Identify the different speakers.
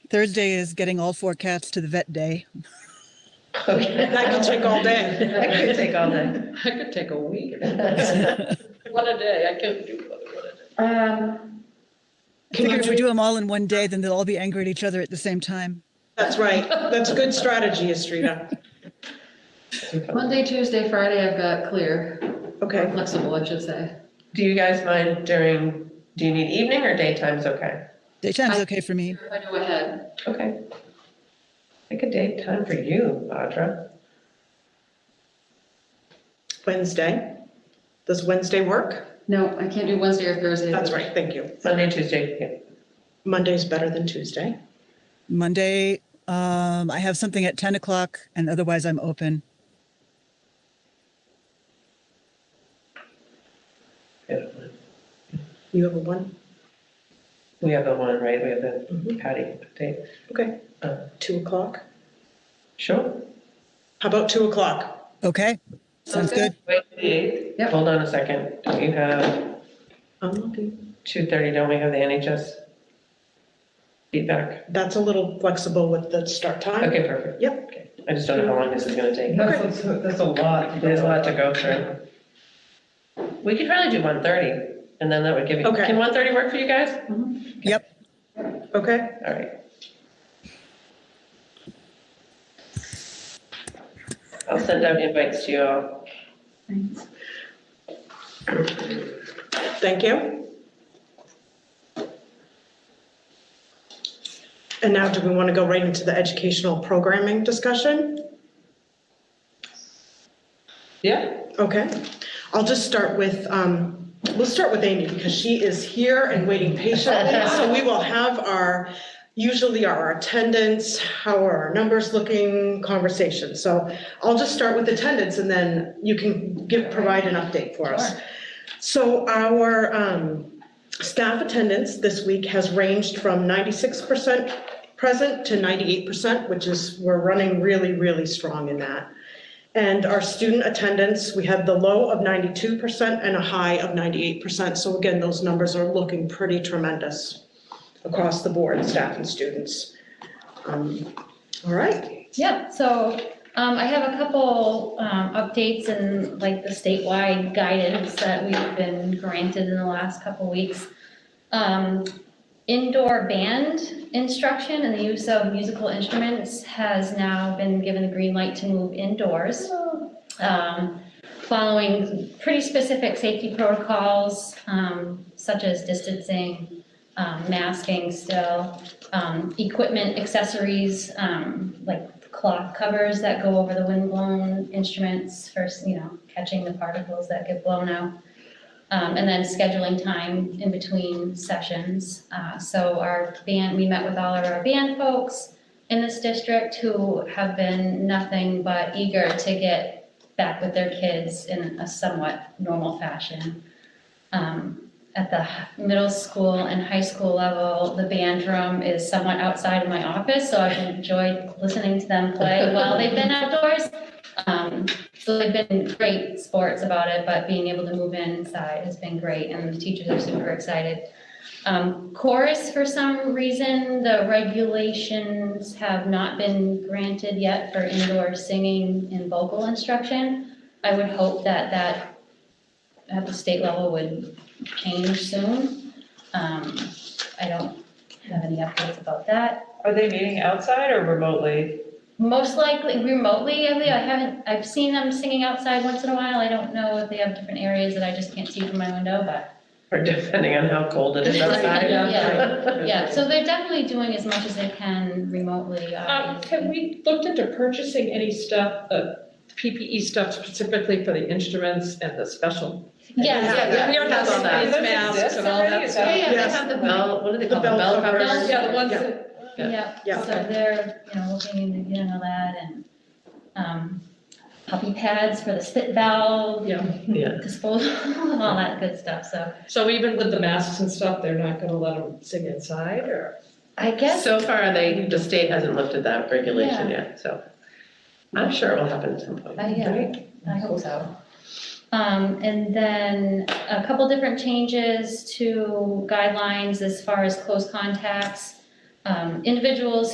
Speaker 1: Third day is getting all four cats to the vet day.
Speaker 2: That could take all day.
Speaker 3: That could take all day.
Speaker 4: I could take a week. One a day, I can't do more than one a day.
Speaker 3: Um,
Speaker 1: I figured if we do them all in one day, then they'll all be angry at each other at the same time.
Speaker 2: That's right. That's a good strategy, Estrida.
Speaker 5: Monday, Tuesday, Friday, I've got clear,
Speaker 2: Okay.
Speaker 5: flexible, I should say.
Speaker 3: do you guys mind during, do you need evening or daytime's okay?
Speaker 1: Daytime's
Speaker 5: I-
Speaker 1: okay for me.
Speaker 5: If I know ahead,
Speaker 3: Okay. Pick a daytime for you, Audra.
Speaker 2: Wednesday. Does Wednesday work?
Speaker 5: no, I can't do Wednesday or Thursday.
Speaker 2: That's right. Thank you.
Speaker 3: Monday, Tuesday, yeah.
Speaker 2: Monday's better than Tuesday.
Speaker 1: Monday, um, I have something at 10 o'clock and otherwise I'm open.
Speaker 3: Yeah.
Speaker 2: You have a one?
Speaker 3: We have the one, right? We have
Speaker 4: Mm-hmm.
Speaker 3: the Patty update.
Speaker 2: Okay.
Speaker 3: Uh,
Speaker 2: Two o'clock?
Speaker 3: Sure.
Speaker 2: How about two o'clock?
Speaker 1: Okay, sounds good.
Speaker 3: Wait, the eighth.
Speaker 5: Yep.
Speaker 3: Hold on a second. Don't you have
Speaker 2: I'm looking.
Speaker 3: two thirty? Don't we have the NHS feedback?
Speaker 2: That's a little flexible with the start time.
Speaker 3: Okay, perfect.
Speaker 2: Yep.
Speaker 3: Okay. I just don't know how long this is gonna take.
Speaker 6: That's, a- that's a lot.
Speaker 3: There's a lot to go through. We could probably do one thirty, and then that would give you,
Speaker 2: Okay.
Speaker 3: can one thirty work for you guys?
Speaker 6: Mm-hmm.
Speaker 1: Yep.
Speaker 2: Okay.
Speaker 3: All right. I'll send out invites to you all.
Speaker 2: Thank you. And now do we want to go right into the educational programming discussion?
Speaker 3: Yeah.
Speaker 2: Okay, I'll just start with, um, we'll start with Amy because she is here and waiting patiently. So we will have our, usually our attendance, how are our numbers looking, conversation. So I'll just start with attendance and then you can give, provide an update for us. So our, um, staff attendance this week has ranged from ninety-six percent present to ninety-eight percent, which is, we're running really, really strong in that. And our student attendance, we had the low of 92% and a high of 98%. So again, those numbers are looking pretty tremendous across the board, staff and students. Um, All right,
Speaker 7: Yeah, so um, I have a couple um, updates and like the statewide guidance that we've been granted in the last couple weeks. Um, Indoor band instruction and the use of musical instruments has now been given the green light to move indoors. um, Following pretty specific safety protocols um, such as distancing, um, masking still um, equipment, accessories, um, like cloth covers that go over the windblown instruments for, you know, catching the particles that get blown out. Um, and then scheduling time in between sessions. Uh, so our band, we met with all of our band folks in this district who have been nothing but eager to get back with their kids in a somewhat normal fashion. Um, at the h- middle school and high school level, the band room is somewhat outside of my office, so I've enjoyed listening to them play while they've been outdoors. Um, so they've been great sports about it, but being able to move inside has been great, and the teachers are super excited. Um, chorus, for some reason, the regulations have not been granted yet for indoor singing and vocal instruction. I would hope that that at the state level would change soon. Um, I don't have any updates about that.
Speaker 6: Are they meeting outside or remotely?
Speaker 7: Most likely remotely, Emily, I haven't, I've seen them singing outside once in a while. I don't know if they have different areas that I just can't see from my window, but
Speaker 3: Or depending on how cold it is outside.
Speaker 7: Yeah. yeah, so they're definitely doing as much as they can remotely.
Speaker 4: Um,
Speaker 7: obviously.
Speaker 4: have we looked into purchasing any stuff, uh, PPE stuff specifically for the instruments and the special?
Speaker 7: Yes,
Speaker 2: Yeah,
Speaker 7: yeah,
Speaker 3: we already have all that.
Speaker 4: Face masks and all that
Speaker 6: Does it exist
Speaker 4: stuff.
Speaker 6: already?
Speaker 3: Yeah,
Speaker 2: they
Speaker 3: they
Speaker 2: Yes. have
Speaker 3: have the bell, what do they
Speaker 2: The
Speaker 3: call them?
Speaker 2: bell
Speaker 3: Bell
Speaker 2: covers.
Speaker 3: covers?
Speaker 4: Yeah, the ones that
Speaker 7: yeah.
Speaker 2: Yeah.
Speaker 7: So they're, you know, looking into getting all that and, um, puppy pads for the spit valve,
Speaker 4: Yeah.
Speaker 3: Yeah.
Speaker 7: disposal, all that good stuff, so.
Speaker 4: So even with the masks and stuff, they're not gonna let them sing inside or?
Speaker 7: I guess,
Speaker 3: So far, they, the state hasn't lifted that regulation yet, so I'm sure it will happen at some point.
Speaker 7: I, Uh, yeah,
Speaker 3: right?
Speaker 7: I hope so. Um, and then a couple different changes to guidelines as far as close contacts. um, individuals